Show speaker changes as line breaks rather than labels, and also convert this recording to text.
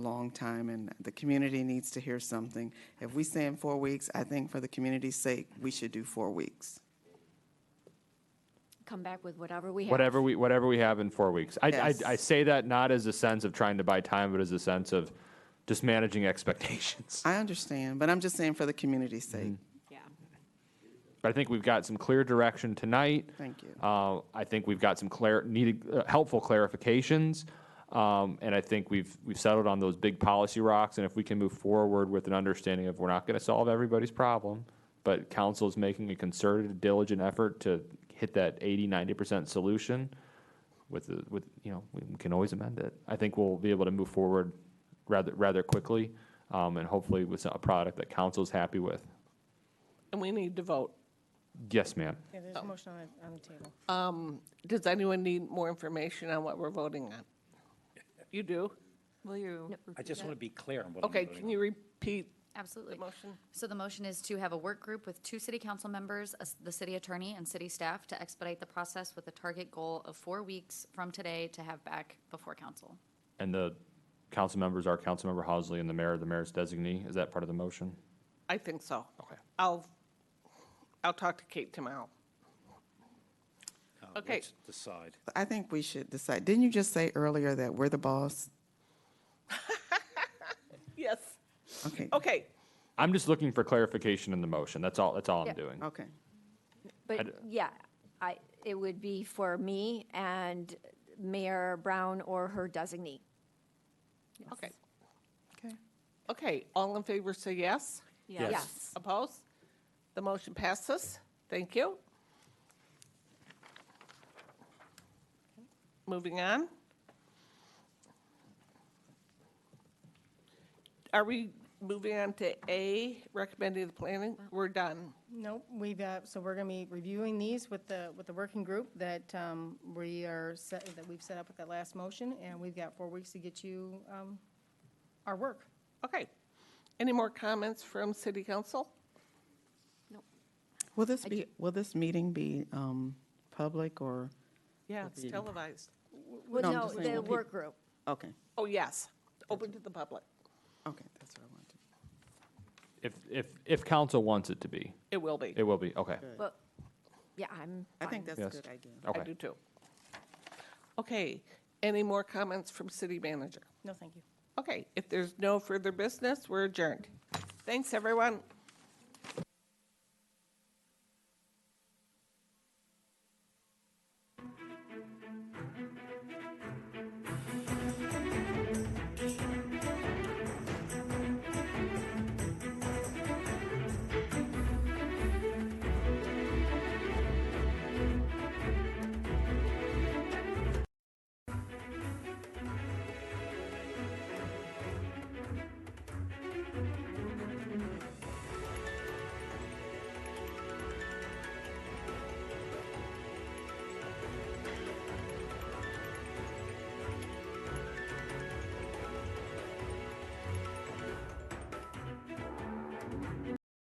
long time, and the community needs to hear something. If we say in four weeks, I think for the community's sake, we should do four weeks.
Come back with whatever we have.
Whatever we, whatever we have in four weeks. I, I,
Yes.
I say that not as a sense of trying to buy time, but as a sense of just managing expectations.
I understand, but I'm just saying for the community's sake.
Mm-hmm.
Yeah.
But I think we've got some clear direction tonight.
Thank you.
Uh, I think we've got some clar- needed, uh, helpful clarifications. Um, and I think we've, we've settled on those big policy rocks. And if we can move forward with an understanding of we're not going to solve everybody's problem, but council is making a concerted, diligent effort to hit that 80, 90% solution with, the, with, you know, we can always amend it. I think we'll be able to move forward rather, rather quickly. Um, and hopefully with a product that council's happy with.
And we need to vote.
Yes, ma'am.
Yeah, there's a motion on the, on the table.
Does anyone need more information on what we're voting on? You do?
Will you?
I just want to be clear on what I'm
Okay,
voting
can you repeat
Absolutely.
the motion?
So the motion is to have a work group with two city council members, a s- the city attorney, and city staff to expedite the process with a target goal of four weeks from today to have back before council.
And the council members are Councilmember Housley and the mayor, the mayor's designee. Is that part of the motion?
I think so.
Okay.
I'll, I'll talk to Kate tomorrow.
Uh,
okay.
let's Decide.
I think we should decide. Didn't you just say earlier that we're the boss?
Yes,
Okay,
okay.
I'm just looking for clarification in the motion. That's all, that's all I'm
Yeah.
doing.
okay.
d-
But yeah, I, it would be for me and Mayor Brown or her designee.
Okay,
Okay.
okay, all in favor say yes?
Yes.
Opposed? The motion passes. Thank you. Moving on. Are we moving on to A, recommending the planning? We're done.
Nope, we've, uh, so we're gonna be reviewing these with the, with the working group that, um, we are set, that we've set up with that last motion, and we've got four weeks to get you, um, our work.
Okay. Any more comments from city council?
Will this be, will this meeting be um, public or?
Yeah, it's televised.
Well,
No, I'm
no,
just saying
the
what
work group.
Okay,
Oh, yes, open to the public.
okay, that's what I wanted.
If, if, if council wants it to be,
It will be.
it will be. Okay.
But, yeah, I'm
I
fine.
think that's a
Yes.
good idea.
I do
Okay.
too. Okay, any more comments from city manager?
No, thank you.
Okay, if there's no further business, we're adjourned. Thanks, everyone.